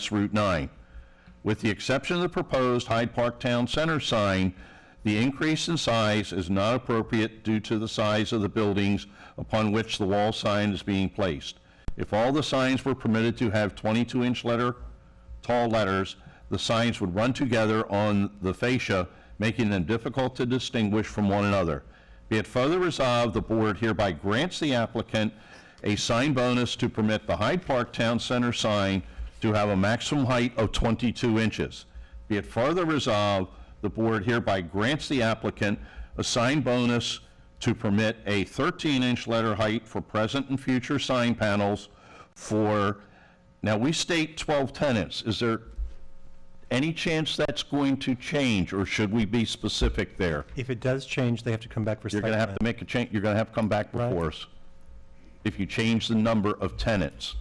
access Route 9. With the exception of the proposed Hyde Park Town Center sign, the increase in size is not appropriate due to the size of the buildings upon which the wall sign is being placed. If all the signs were permitted to have 22-inch letter, tall letters, the signs would run together on the fascia, making them difficult to distinguish from one another. Be it further resolved, the board hereby grants the applicant a sign bonus to permit the Hyde Park Town Center sign to have a maximum height of 22 inches. Be it further resolved, the board hereby grants the applicant a sign bonus to permit a 13-inch letter height for present and future sign panels for, now, we state 12 tenants. Is there any chance that's going to change, or should we be specific there? If it does change, they have to come back for You're site going to have plan. to make a change, you're going to have to come back Right. before us if you change the number of tenants.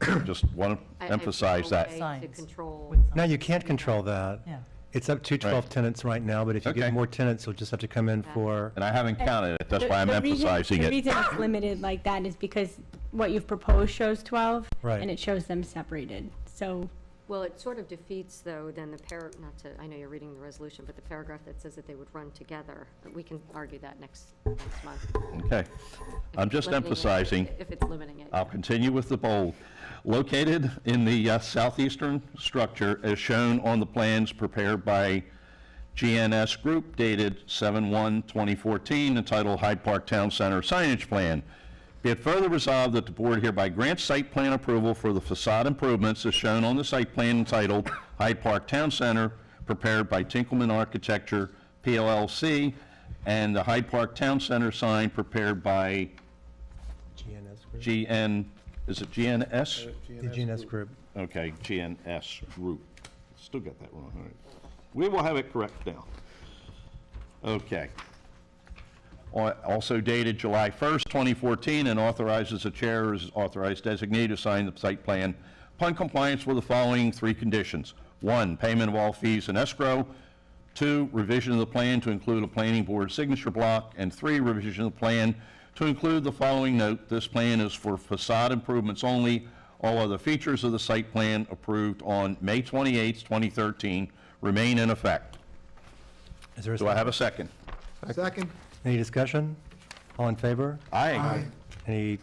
Just want I- to I emphasize found a that. way To Signs. control, No, you can't control that. Yeah. It's up to 12 Right. tenants right now, but if you Okay. get more tenants, you'll just have to come in for, And I haven't counted it, that's The- why I'm the reason- emphasizing The it. reason it's limited like that is because what you've proposed shows 12. Right. And it shows them separated, so. well, it sort of defeats, though, then the par, not to, I know you're reading the resolution, but the paragraph that says that they would run together, we can argue that next, next month. Okay. I'm just Limiting it, emphasizing. If it's limiting it. I'll continue with the bold. Located in the uh, southeastern structure as shown on the plans prepared by GNS Group dated 7/1/2014 entitled Hyde Park Town Center Signage Plan. Be it further resolved that the board hereby grants site plan approval for the facade improvements as shown on the site plan entitled Hyde Park Town Center prepared by Tinkelman Architecture PLLC and the Hyde Park Town Center sign prepared by GNS Group. GN, is it GNS? The GNS Group. Okay, GNS Group. Still got that wrong, all right. We will have it correct now. Okay. Al- Also dated July 1st, 2014, and authorizes the chair is authorized designee to sign the site plan upon compliance with the following three conditions. One, payment of all fees in escrow. Two, revision of the plan to include a planning board signature block. And three, revision of the plan to include the following note, this plan is for facade improvements only. All other features of the site plan approved on May 28th, 2013 remain in effect. Is there a Do I second? have a second? Second? Any discussion? All in favor? Aye. Any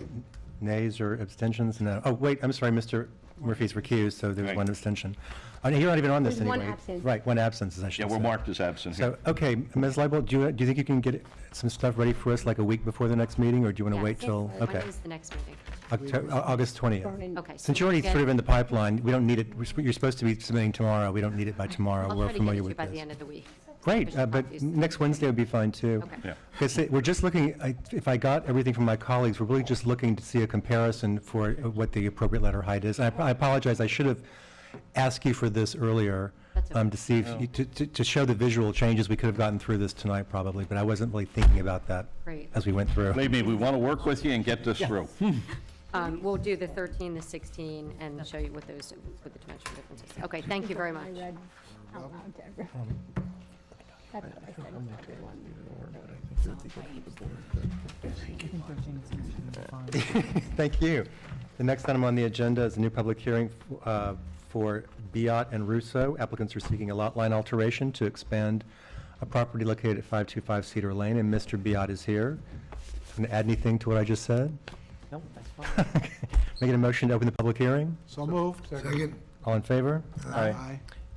nays or abstentions? No. Oh, wait, I'm sorry, Mr. Murphy's recused, so there's Right. one abstention. Oh, no, You're not even on this There's one anyway. absent. Right, one absence, as I should Yeah, say. we're marked as absent here. So, okay, Ms. Leibert, do you, do you think you can get some stuff ready for us like a week before the next meeting, or do you want to Yes. wait till? When Okay, is the next meeting? Octo- Au- August 20th. burning. Okay. so Since you're already again, sort of in the pipeline, we don't need it, we're sp- you're supposed to be submitting tomorrow, we don't need it by tomorrow, I'll we're try to get it familiar to you with by the end this. of the week. Great, There's uh, but copies. next Wednesday would be fine, too. Okay. Yeah. Because we're just looking, I- if I got everything from my colleagues, we're really just looking to see a comparison for uh, what the appropriate letter height is. And I I apologize, I should have asked you for this earlier, That's okay. um, to see, if you- to- to to show the visual changes, we could have gotten through this tonight probably, but I wasn't really thinking about that Great. as we went through. Believe me, we want to work with you and get this through. Um, We'll do the 13, the 16, and show you what those, what the dimensional differences. Okay, thank you very much. I read out loud to everyone. That's what I said to everyone. Thank you. The next item on the agenda is a new public hearing uh, for Biot and Russo. Applicants are seeking a lot line alteration to expand a property located at 525 Cedar Lane, and Mr. Biot is here. Can I add anything to what I just said? No, that's fine. Making a motion to open the public hearing? So moved. Second? All in favor?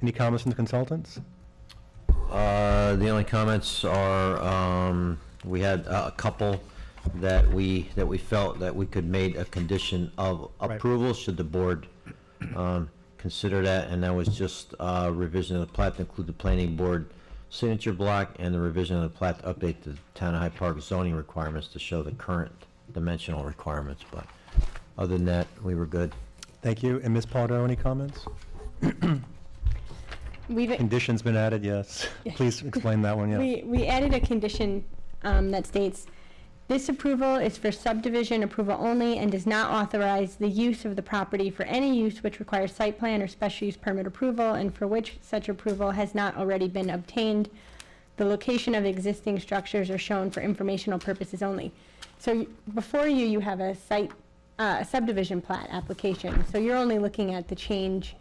Any comments from the consultants? Uh, the only comments are, um, we had a a couple that we, that we felt that we could make a condition of Right. approval, should the board, um, consider that, and that was just, uh, revision of the plat to include the planning board signature block and the revision of the plat to update the town of Hyde Park zoning requirements to show the current dimensional requirements, but other than that, we were good. Thank you. And Ms. Pardo, any comments? We've, Conditions been added, yes. Please explain that one, yes. We, we added a condition um, that states, "This approval is for subdivision approval only and does not authorize the use of the property for any use which requires site plan or special use permit approval and for which such approval has not already been obtained. The location of existing structures are shown for informational purposes only." So y- before you, you have a site uh, subdivision plat application. So you're only looking at the change